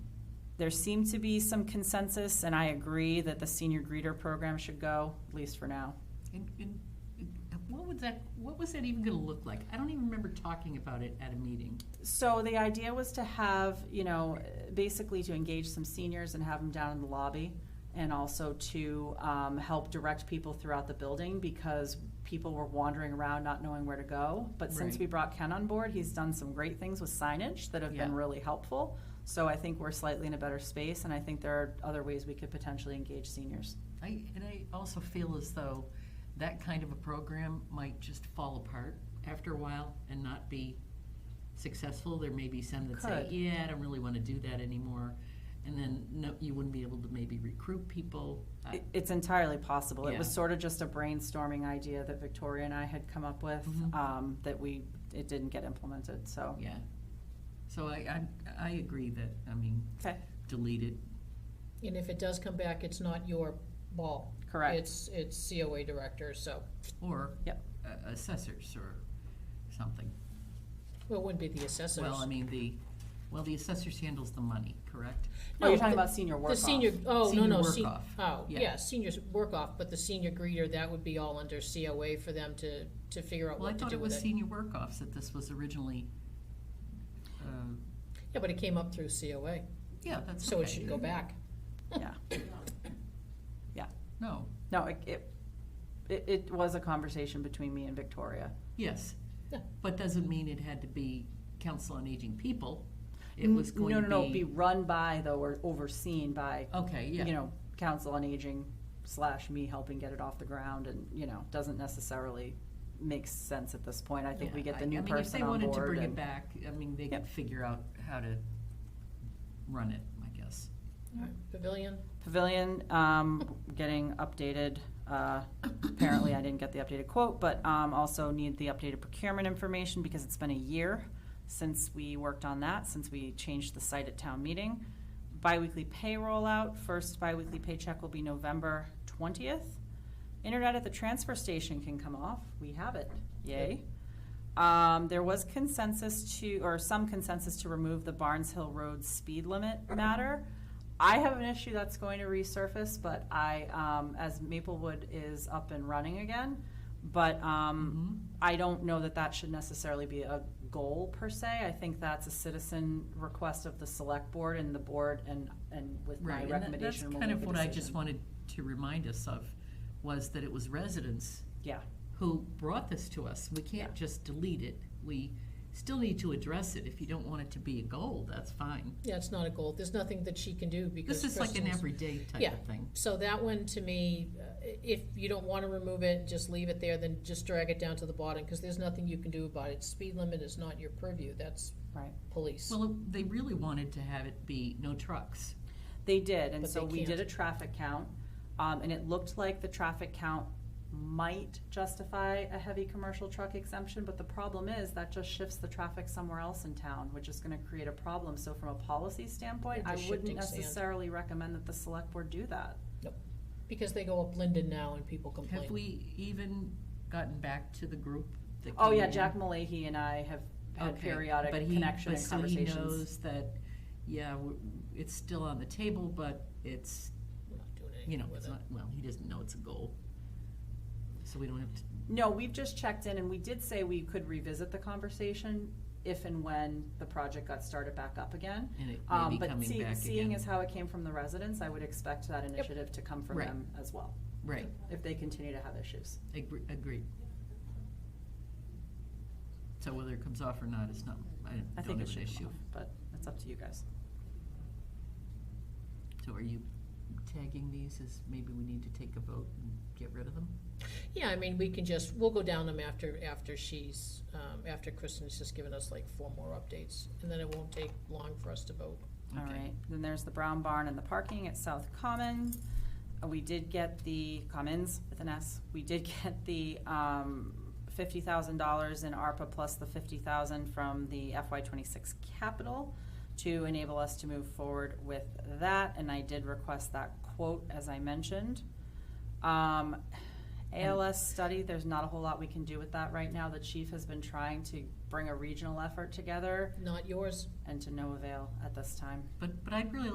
There seemed to be some consensus, and I agree that the senior greeter program should go, at least for now. And, and and what would that, what was that even gonna look like? I don't even remember talking about it at a meeting. So the idea was to have, you know, basically to engage some seniors and have them down in the lobby and also to um, help direct people throughout the building because people were wandering around not knowing where to go. But since Right. we brought Ken on board, he's done some great things with signage that have been Yeah. really helpful. So I think we're slightly in a better space and I think there are other ways we could potentially engage seniors. I, and I also feel as though that kind of a program might just fall apart after a while and not be successful. There may be some that say, Could. yeah, I don't really wanna do that anymore. And then, no, you wouldn't be able to maybe recruit people. Uh, I- It- It's entirely possible. It was Yeah. sort of just a brainstorming idea that Victoria and I had come up with, Mhm. um, that we, it didn't get implemented, so. Yeah. So I, I, I agree that, I mean, Okay, delete it. And if it does come back, it's not your ball. correct. It's, it's COA director, so, Or Yep. a- assessors or something. well, it wouldn't be the assessors. Well, I mean, the, well, the assessors handles the money, correct? Oh, you're No, talking the- about senior work The senior, oh, no, Senior no. work se- off. Oh, Yeah. yeah, seniors work off, but the senior greeter, that would be all under COA for them to, to figure out Well, I what to thought do it was with it. senior work-offs that this was originally, uh, Yeah, but it came up through COA, yeah, that's okay. so it should go back. Yeah, No, no, it- it, it, it was a conversation between me and Victoria. yes, Yeah. but doesn't mean it had to be council on aging people. It N- was Mm, going No, no, no, to be be, run by though, or overseen by, okay, you yeah, know, council on aging slash me helping get it off the ground and, you know, doesn't necessarily make sense at this point. I think we Yeah, get the I- new person on I mean, if they wanted to board bring it and. back, I mean, they Yep. could figure out how to run it, I guess. Pavilion, Pavilion, um, getting updated, uh, apparently I didn't get the updated quote, but, um, also need the updated procurement information because it's been a year since we worked on that, since we changed the site at town meeting. Biweekly pay rollout, first biweekly paycheck will be November twentieth. Internet at the transfer station can come off, we have it, yay. Um, there was consensus to, or some consensus to remove the Barnes Hill Road speed limit matter. I have an issue that's going to resurface, but I, um, as Maplewood is up and running again, but, um, Mhm. I don't know that that should necessarily be a goal per se. I think that's a citizen request of the select board and the board and, and with my Right, and that- that's recommendation. we'll kind make of a what I just decision. wanted to remind us of, was that it was residents Yeah, who brought this to us. We can't Yeah. just delete it. We still need to address it. If you don't want it to be a goal, that's fine. yeah, it's not a goal, there's nothing that she can do because This is like an Kristen's- everyday type Yeah. of thing. So that one, to me, uh, if you don't wanna remove it, just leave it there, then just drag it down to the bottom, cause there's nothing you can do about it. Speed limit is not your purview, that's right. police. Well, they really wanted to have it be no trucks. They did, and But so they we did can't. a traffic count, um, and it looked like the traffic count might justify a heavy commercial truck exemption, but the problem is that just shifts the traffic somewhere else in town, which is gonna create a problem. So from a policy standpoint, They're I just wouldn't shifting sand. necessarily recommend that the select board do that. Because they go up Linden now and people complain. Have we even gotten back to the group that Oh, came yeah, in? Jack Malahy and I have had Okay, periodic but he- connection but and conversations. So he knows that, yeah, w- it's still on the table, but it's, We're not doing you know, anything with it's it. not, well, he doesn't know it's a goal. So we don't have to, No, we've just checked in and we did say we could revisit the conversation if and when the project got started back up again. and it may Um, be but coming back see, again. seeing as how it came from the residents, I would expect that initiative to come from Right. them as well, Right, if they continue to have issues. Agree- Agreed. So whether it comes off or not, it's not, I I don't think have it an should come issue. off, but it's up to you guys. So are you tagging these as maybe we need to take a vote and get rid of them? Yeah, I mean, we can just, we'll go down them after, after she's, um, after Kristen's just given us like four more updates, and then it won't take long for us to vote. All Okay. right, then there's the Brown Barn and the parking at South Common. Uh, We did get the Commons with an S. We did get the um, fifty thousand dollars in ARPA plus the fifty thousand from the FY twenty-six capital to enable us to move forward with that, and I did request that quote, as I mentioned. Um, ALS study, there's not a whole lot we can do with that right now. The chief has been trying to bring a regional effort together Not yours? and to no avail at this time. But, but I'd really